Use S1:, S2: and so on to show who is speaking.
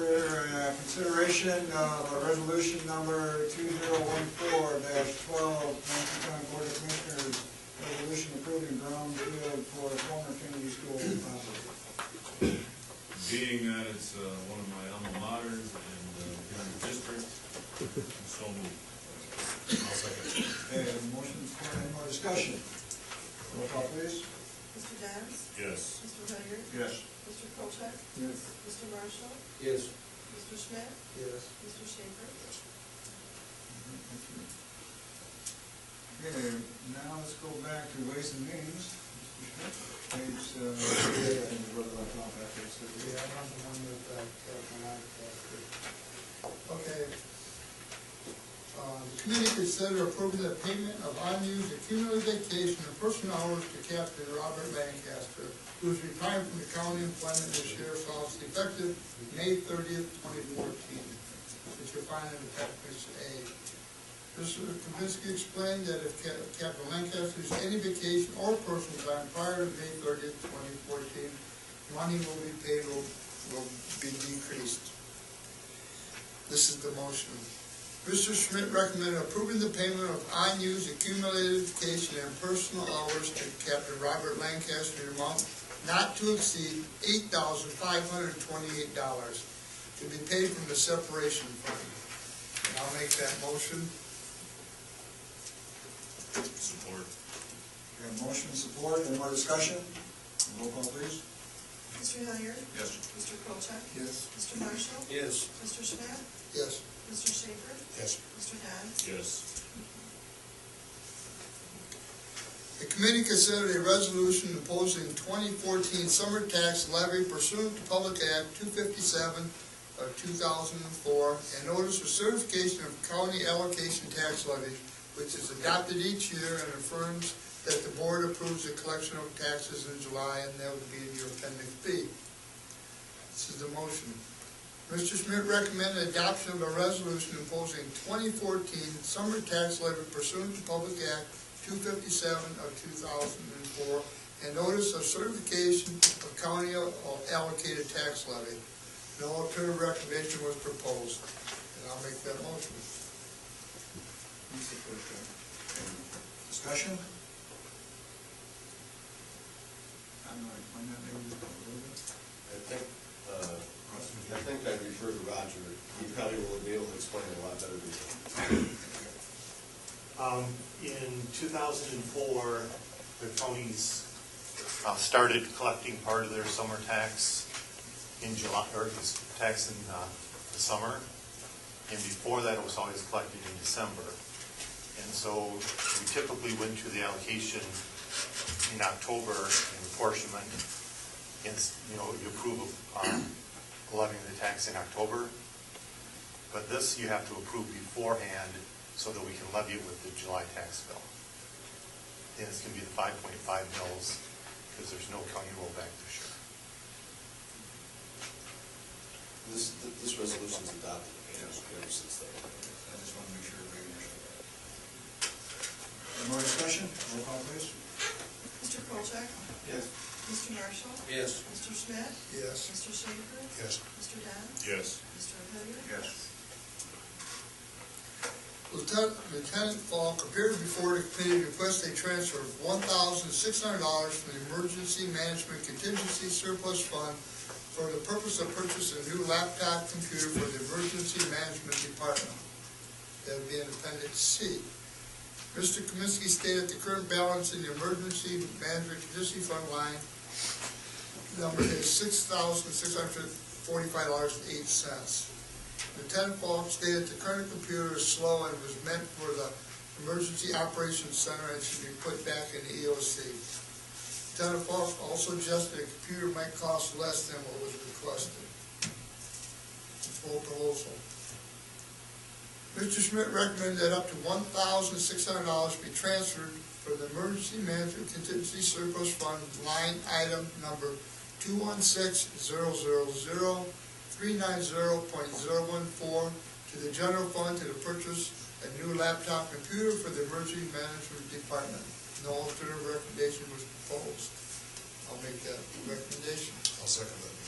S1: uh, consideration of a resolution number two zero one four dash twelve, Ramsey County Board of Commissioners, resolution approving ground field for former Kennedy School property.
S2: Being that it's uh, one of my alma maters and uh, here in the district, so moved. I'll second.
S1: Okay, motion, any more discussion? Roll call please.
S3: Mr. Downs?
S2: Yes.
S3: Mr. Hilliard?
S1: Yes.
S3: Mr. Colchak?
S1: Yes.
S3: Mr. Marshall?
S4: Yes.
S3: Mr. Schmidt?
S1: Yes.
S3: Mr. Schaefer?
S1: Okay, now let's go back to ways and means. Page, uh, yeah, and what did I talk about this?
S4: Yeah, I'm the one that, uh, Catherine, I, uh, Okay. Uh, the committee consider approving the payment of unused accumulated vacation and personal hours to Captain Robert Lancaster, who's retired from the county employment this year, so it's effective May thirtieth, twenty fourteen. That you'll find in appendix A. Mr. Kaminsky explained that if Cap- Captain Lancaster has any vacation or personal time prior to May thirtieth, twenty fourteen, money will be paid will, will be decreased. This is the motion. Mr. Schmidt recommended approving the payment of unused accumulated vacation and personal hours to Captain Robert Lancaster in amount not to exceed eight thousand five hundred and twenty-eight dollars to be paid from the separation fund. And I'll make that motion.
S2: Support.
S1: Okay, motion support, any more discussion? Roll call please.
S3: Mr. Hilliard?
S2: Yes.
S3: Mr. Colchak?
S4: Yes.
S3: Mr. Marshall?
S4: Yes.
S3: Mr. Schmidt?
S4: Yes.
S3: Mr. Schaefer?
S4: Yes.
S3: Mr. Downs?
S2: Yes.
S4: The committee considered a resolution imposing 2014 summer tax levy pursuant to Public Act 257 of 2004 and notice for certification of county allocation tax levy, which is adopted each year and affirms that the board approves the collection of taxes in July, and that would be in your appendix B. This is the motion. Mr. Schmidt recommended adoption of a resolution imposing 2014 summer tax levy pursuant to Public Act 257 of 2004, and notice of certification of county allocated tax levy. No alternative recommendation was proposed, and I'll make that motion.
S1: You support that. Okay, Discussion? I'm not, I'm not maybe just a little bit.
S5: I think, uh, I think I'd refer to Roger, he probably will be able to explain it a lot better than me.
S6: Um, In 2004, the counties uh, started collecting part of their summer tax in July, or this tax in uh, the summer. And before that, it was always collected in December. And so we typically went to the allocation in October in apportionment. It's, you know, you approve of um, levying the tax in October. But this you have to approve beforehand so that we can levy it with the July tax bill. And it's going to be the five point five mills because there's no county rollback this year.
S5: This, this resolution's adopted, ever since then.
S1: I just want to make sure everybody understands. Any more discussion? Roll call please.
S3: Mr. Colchak?
S4: Yes.
S3: Mr. Marshall?
S4: Yes.
S3: Mr. Schmidt?
S4: Yes.
S3: Mr. Schaefer?
S4: Yes.
S3: Mr. Downs?
S2: Yes.
S3: Mr. Hilliard?
S1: Yes.
S4: Lieutenant Lieutenant Falk appeared before the committee to request a transfer of one thousand six hundred dollars from the Emergency Management Contingency Surplus Fund for the purpose of purchasing a new laptop computer for the Emergency Management Department. That would be in Appendix C. Mr. Kaminsky stated the current balance in the Emergency Management Contingency Fund line number is six thousand six hundred forty-five dollars and eight cents. Lieutenant Falk stated the current computer is slow and was meant for the Emergency Operations Center and should be put back in the E EOC. Lieutenant Falk also suggested the computer might cost less than what was requested. It's full proposal. Mr. Schmidt recommended that up to one thousand six hundred dollars be transferred from the Emergency Management Contingency Surplus Fund line item number two one six zero zero zero 390.014 to the general fund to purchase a new laptop computer for the emergency management department. No alternative recommendation was proposed. I'll make that recommendation.
S7: I'll second that.